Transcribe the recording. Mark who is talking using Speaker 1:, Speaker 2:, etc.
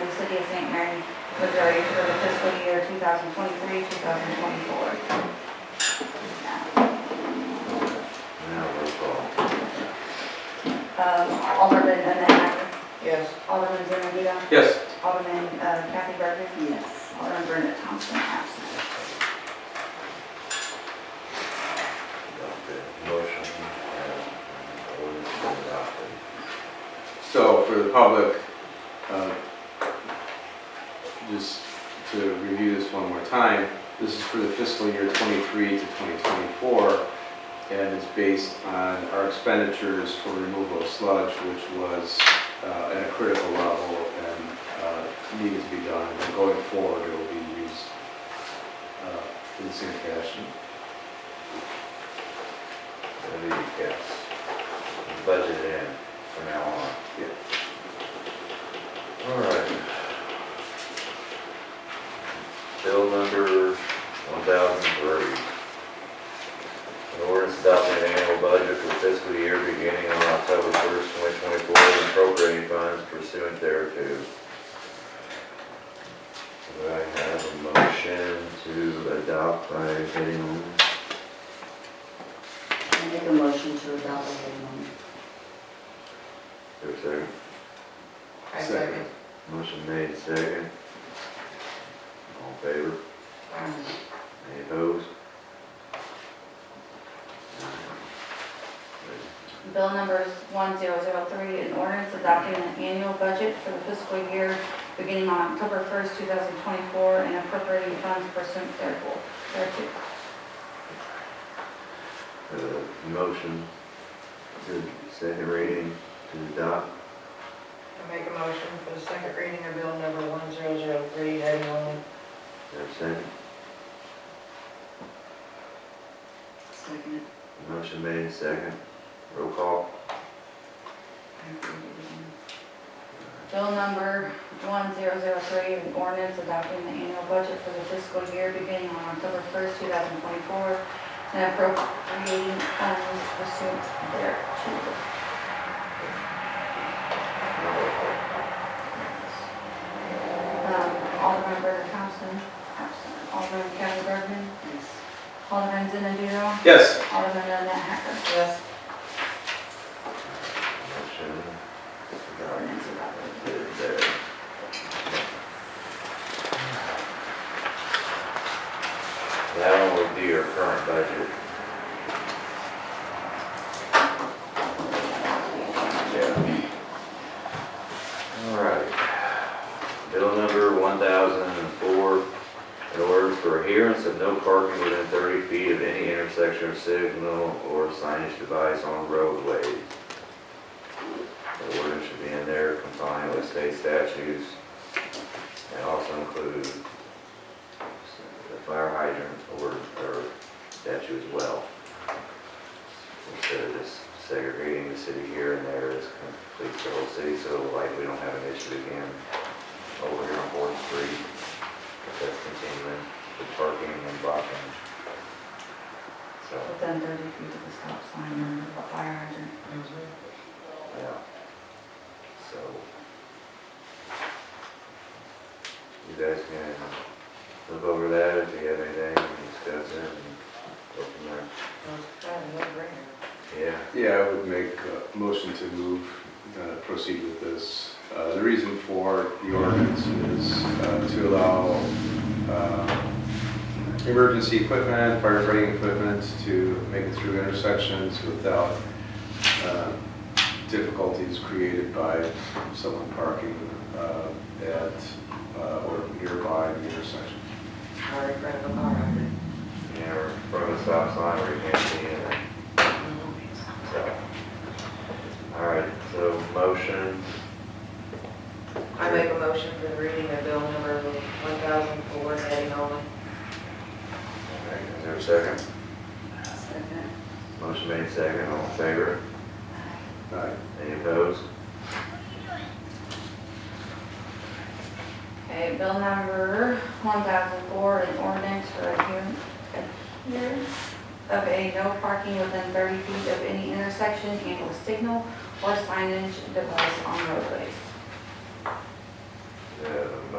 Speaker 1: City of St. Mary, Missouri for the fiscal year 2023, 2024.
Speaker 2: Now, roll call.
Speaker 1: Um, Alderman Anagni,
Speaker 3: Yes.
Speaker 1: Alderman Zuniga,
Speaker 4: Yes.
Speaker 1: Alderman uh, Kathy Burman,
Speaker 3: Yes.
Speaker 1: Alderman Brenda Thompson absent.
Speaker 2: Adopted. Motion, uh, ordinance adopted.
Speaker 4: So for the public, uh, just to review this one more time, this is for the fiscal year '23 to 2024, and it's based on our expenditures for removal of sludge, which was uh, at a critical level and uh, needed to be done. And going forward, it will be used uh, in the same fashion.
Speaker 2: That'll be, yes. Budget in from now on.
Speaker 4: Yeah.
Speaker 2: All right. Bill number one thousand three. An ordinance adopting an annual budget for fiscal year beginning on October first, twenty twenty-four, and appropriating funds pursuant thereto. Do I have a motion to adopt by heading only?
Speaker 3: I make a motion to adopt the minimum.
Speaker 2: Is there?
Speaker 4: I second.
Speaker 2: Motion made, second. All in favor?
Speaker 3: Um,
Speaker 2: Any opposed?
Speaker 1: Bill numbers 1003, an ordinance adopting an annual budget for the fiscal year beginning on October 1st, 2024, and appropriating funds pursuant therefor- thereto.
Speaker 2: Uh, motion to second reading to adopt.
Speaker 5: I make a motion for the second reading of bill number 1003, heading only.
Speaker 2: Is there a second?
Speaker 3: Second.
Speaker 2: Motion made, second. Roll call.
Speaker 1: Bill number 1003, an ordinance adopting the annual budget for the fiscal year beginning on October 1st, 2024, and appropriating funds pursuant thereto.
Speaker 2: No, roll call.
Speaker 1: Um, Alderman Brendan Thompson, absent. Alderman Kathy Burman,
Speaker 3: Yes.
Speaker 1: Alderman Zenadino,
Speaker 4: Yes.
Speaker 1: Alderman Annette Hacker.
Speaker 5: Yes.
Speaker 2: Motion. adopted.
Speaker 1: Ordinance adopted.
Speaker 2: There, there. That one would be your current budget. Yeah. All right. Bill number one thousand and four, in order for adherence of no parking within thirty feet of any intersection or signal or signage device on roadways. The order should be in there complying with state statutes and also include the fire hydrant or, or statute as well. Instead of just segregating the city here and there, this completes the whole city, so like we don't have an issue again over here on Fourth Street. If that's continuing, the parking and blocking. So,
Speaker 1: Within 30 feet of the stop sign and the fire hydrant.
Speaker 2: yeah. So. You guys can look over that if you have anything, discuss it and go from there.
Speaker 5: Well, it's kind of a no-brainer.
Speaker 2: Yeah,
Speaker 4: Yeah, I would make a motion to move, uh, proceed with this. Uh, The reason for the ordinance is uh, to allow uh, emergency equipment, firefighting equipment to make it through intersections without uh, difficulties created by someone parking uh, at uh, or nearby the intersection.
Speaker 5: Or in front of a car, I mean.
Speaker 2: yeah, or from a stop sign where you can't see anything, so. All right, so motion,
Speaker 5: I make a motion for the reading of bill number 1004, heading only.
Speaker 2: all right, is there a second?
Speaker 1: Second.
Speaker 2: Motion made second, all in favor?
Speaker 4: Aye.
Speaker 2: Any opposed?
Speaker 1: Okay, bill number 1004, an ordinance for adherence adherence of a no parking within 30 feet of any intersection and or signal or signage device on roadways.
Speaker 2: Uh,